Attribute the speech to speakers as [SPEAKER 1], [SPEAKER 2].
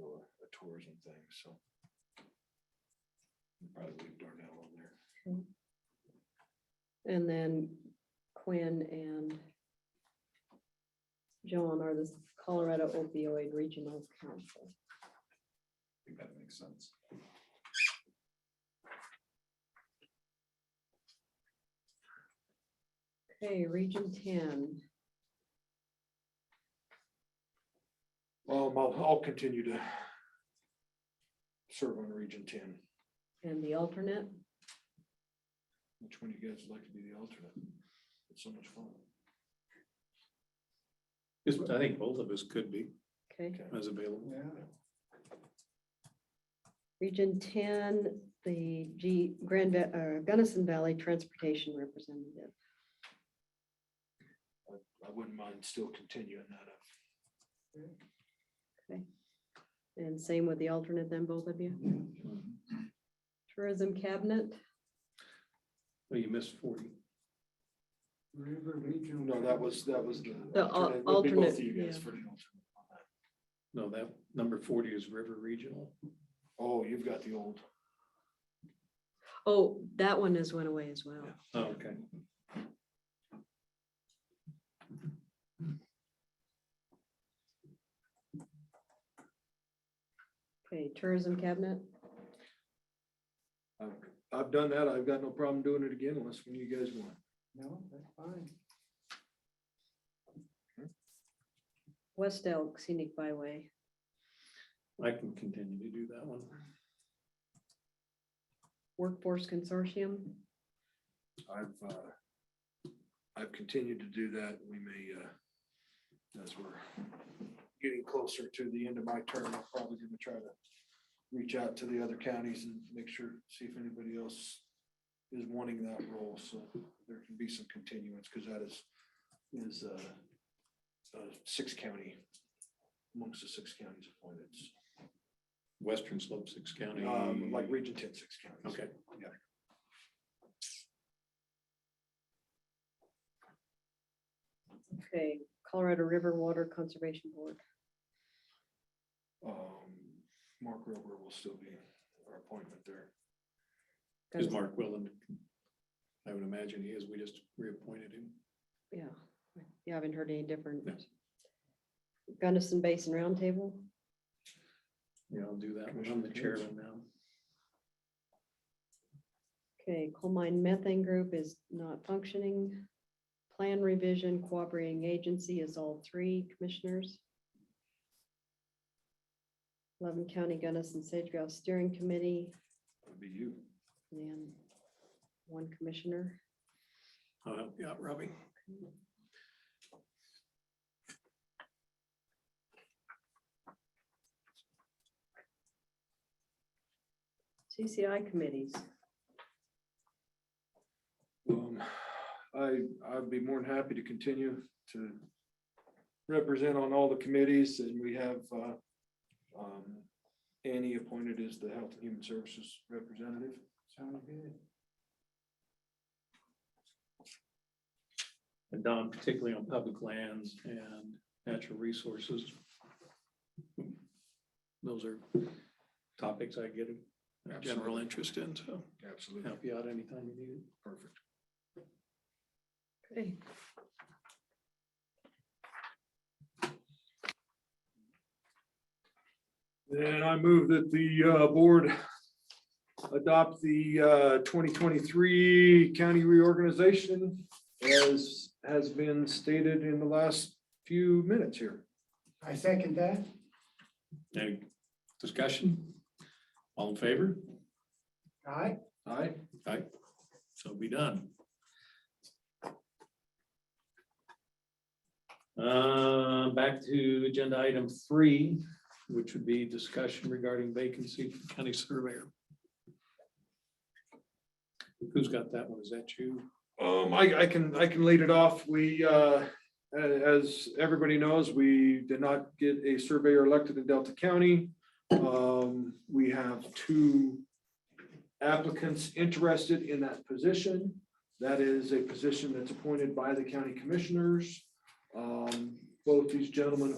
[SPEAKER 1] a tourism thing, so. we'll Probably leave Darnell on there.
[SPEAKER 2] And then Quinn and Joan are the Colorado opioid regional council.
[SPEAKER 1] I think that makes sense.
[SPEAKER 2] Okay, region ten.
[SPEAKER 1] Um, I'll, I'll continue to serve on Region Ten.
[SPEAKER 2] And the alternate,
[SPEAKER 1] Which one of you guys would like to be the alternate? It's so much fun.
[SPEAKER 3] Just, I think both of us could be
[SPEAKER 2] okay.
[SPEAKER 1] Okay.
[SPEAKER 3] as available.
[SPEAKER 2] Region ten, the G, Grand, Va- uh, Gunnison Valley Transportation Representative.
[SPEAKER 1] I wouldn't mind still continuing that up.
[SPEAKER 2] And same with the alternate then, both of you. Tourism Cabinet,
[SPEAKER 3] Well, Oh, you missed forty.
[SPEAKER 4] River Regional.
[SPEAKER 1] No, that was, that was the.
[SPEAKER 2] The al-
[SPEAKER 1] alternate. It would be both of
[SPEAKER 2] alternate,
[SPEAKER 1] You guys
[SPEAKER 2] yeah.
[SPEAKER 1] for the alternate. on that.
[SPEAKER 3] No, that number forty is River Regional.
[SPEAKER 1] Oh, you've got the old.
[SPEAKER 2] oh, that one has went away as well.
[SPEAKER 3] Oh, Okay.
[SPEAKER 2] Okay, Tourism Cabinet,
[SPEAKER 1] I've- I've done that. I've got no problem doing it again unless when you guys want.
[SPEAKER 4] No, that's fine.
[SPEAKER 2] West Elk Scenic Byway.
[SPEAKER 3] I can continue to do that one.
[SPEAKER 2] Workforce Consortium,
[SPEAKER 1] I've, uh, I've continued to do that. We may, uh, as we're getting closer to the end of my term, I'm probably gonna try to reach out to the other counties and make sure, see if anybody else is wanting that role, so there can be some continuance, because that is, is, uh, uh, six county, amongst the six counties appointed,
[SPEAKER 3] Western Slope Six County.
[SPEAKER 1] um, like region ten, six counties.
[SPEAKER 3] Okay,
[SPEAKER 2] okay, Colorado River Water Conservation Board.
[SPEAKER 1] Um, Mark Rober will still be our appointment there.
[SPEAKER 3] is
[SPEAKER 2] Gunnison-
[SPEAKER 3] Mark Willen? I would imagine he is. We just reappointed him.
[SPEAKER 2] Yeah, you haven't heard any different.
[SPEAKER 3] No.
[SPEAKER 2] Gunnison Basin Roundtable,
[SPEAKER 3] Yeah, I'll do that. one. I'm the chairman now.
[SPEAKER 2] okay, coal mine methane group is not functioning. Plan revision cooperating agency is all three commissioners. Eleven County Gunnison Sage Grouse Steering Committee
[SPEAKER 1] That'd be you.
[SPEAKER 2] and one commissioner.
[SPEAKER 3] I'll help you out, Uh, Robbie.
[SPEAKER 2] CCI committees,
[SPEAKER 1] Um, I, I'd be more than happy to continue to represent on all the committees and we have, uh, um, Annie appointed as the Health and Human Services Representative.
[SPEAKER 4] Sounds good.
[SPEAKER 3] And Don, particularly on public lands and natural resources. Those are topics I get a general
[SPEAKER 1] Absolutely.
[SPEAKER 3] interest in, so
[SPEAKER 1] Absolutely.
[SPEAKER 3] help you out anytime you need it.
[SPEAKER 1] Perfect.
[SPEAKER 2] okay.
[SPEAKER 1] Then I move that the, uh, board adopt the, uh, twenty twenty-three county reorganization as has been stated in the last few minutes here.
[SPEAKER 4] I second that.
[SPEAKER 3] Any discussion? All in favor?
[SPEAKER 4] Aye.
[SPEAKER 1] Aye.
[SPEAKER 3] Aye. So be done. Uh, back to agenda item three, which would be discussion regarding vacancy for county surveyor. Who's got that one? Is that you?
[SPEAKER 1] Um, I, I can, I can lead it off. We, uh, a- as everybody knows, we did not get a surveyor elected in Delta County. Um, we have two applicants interested in that position. That is a position that's appointed by the county commissioners. Um, both these gentlemen